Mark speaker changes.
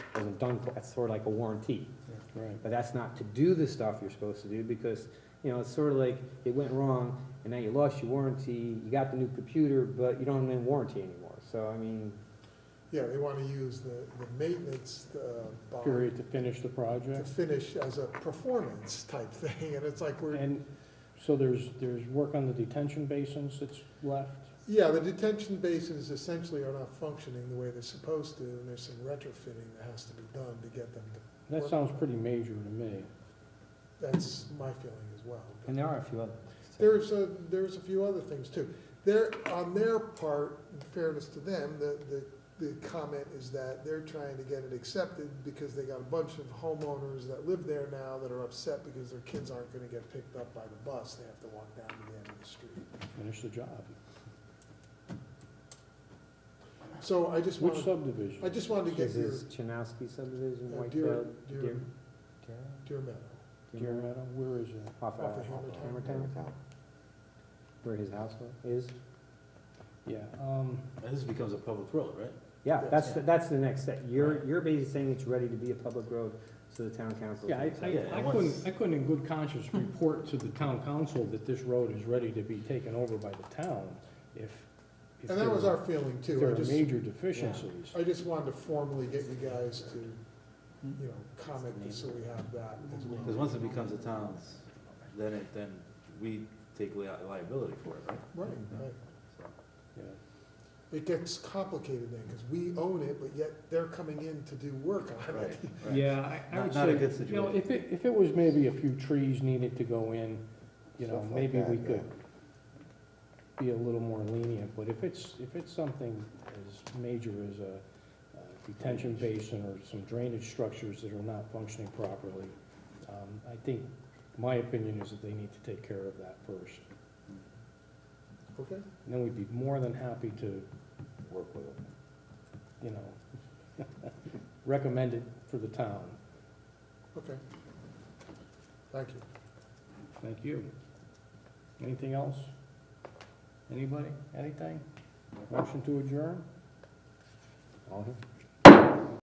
Speaker 1: wasn't done, for- that's sort of like a warranty.
Speaker 2: Right.
Speaker 1: But that's not to do the stuff you're supposed to do, because, you know, it's sort of like, it went wrong, and now you lost your warranty, you got the new computer, but you don't have any warranty anymore, so, I mean,
Speaker 3: Yeah, they want to use the, the maintenance uh, bond
Speaker 2: Period to finish the
Speaker 3: to
Speaker 2: project.
Speaker 3: finish as a performance type thing, and it's like we're,
Speaker 2: And so there's, there's work on the detention basins that's left.
Speaker 3: yeah, the detention basins essentially are not functioning the way they're supposed to, and there's some retrofitting that has to be done to get them to,
Speaker 2: That sounds pretty major to me.
Speaker 3: that's my feeling as well.
Speaker 1: and there are a few other.
Speaker 3: There's a, there's a few other things too. There, on their part, in fairness to them, the, the, the comment is that they're trying to get it accepted because they got a bunch of homeowners that live there now that are upset because their kids aren't gonna get picked up by the bus. They have to walk down to the end of the street.
Speaker 2: Finish the job.
Speaker 3: So I just
Speaker 2: Which
Speaker 3: wanted, I
Speaker 2: subdivision?
Speaker 3: just wanted to get
Speaker 1: This
Speaker 3: your,
Speaker 1: is Chanowski subdivision,
Speaker 3: uh, Deer,
Speaker 1: Whitefield,
Speaker 3: Deer,
Speaker 1: Deer.
Speaker 3: Deer Meadow.
Speaker 2: Deer Meadow, where is that?
Speaker 1: Off of
Speaker 3: Off of Hammertown.
Speaker 1: Hammertown, where his house wa- is.
Speaker 2: Yeah, um,
Speaker 4: And this becomes a public road, right?
Speaker 1: Yeah,
Speaker 3: Yes.
Speaker 1: that's, the- that's the next step. You're, you're basically saying it's ready to be a public road, so the town council.
Speaker 2: yeah, I,
Speaker 1: can
Speaker 2: I
Speaker 1: say-
Speaker 4: Yeah, it
Speaker 2: I
Speaker 4: was.
Speaker 2: couldn't, I couldn't in good conscience report to the town council that this road is ready to be taken over by the town if. if
Speaker 3: And that was
Speaker 2: there-
Speaker 3: our feeling
Speaker 2: If
Speaker 3: too.
Speaker 2: there
Speaker 3: I
Speaker 2: are
Speaker 3: just,
Speaker 2: major deficiencies.
Speaker 3: I just wanted to formally get you guys to, you know, comment so we have that as well.
Speaker 4: Because once it becomes a town's, then it, then we take lia- liability for it, right?
Speaker 3: Right, right.
Speaker 4: So,
Speaker 2: Yeah.
Speaker 3: it gets complicated then, because we own it, but yet they're coming in to do work on
Speaker 4: Right,
Speaker 3: it.
Speaker 4: right.
Speaker 2: Yeah, I- I
Speaker 4: Not-
Speaker 2: would
Speaker 4: not a
Speaker 2: say,
Speaker 4: good
Speaker 2: you know, if it, if it was maybe a few trees needed to go in, you know, maybe we could be a little more lenient, but if it's, if it's something as major as a uh, detention basin or some drainage structures that are not functioning properly, um, I think, my opinion is that they need to take care of that first.
Speaker 3: Okay,
Speaker 2: And then we'd be more than happy to,
Speaker 4: Work with it.
Speaker 2: you know, recommend it for the town.
Speaker 3: okay. Thank you.
Speaker 2: Thank you. Anything else? Anybody, anything? Motion to adjourn?
Speaker 1: All in-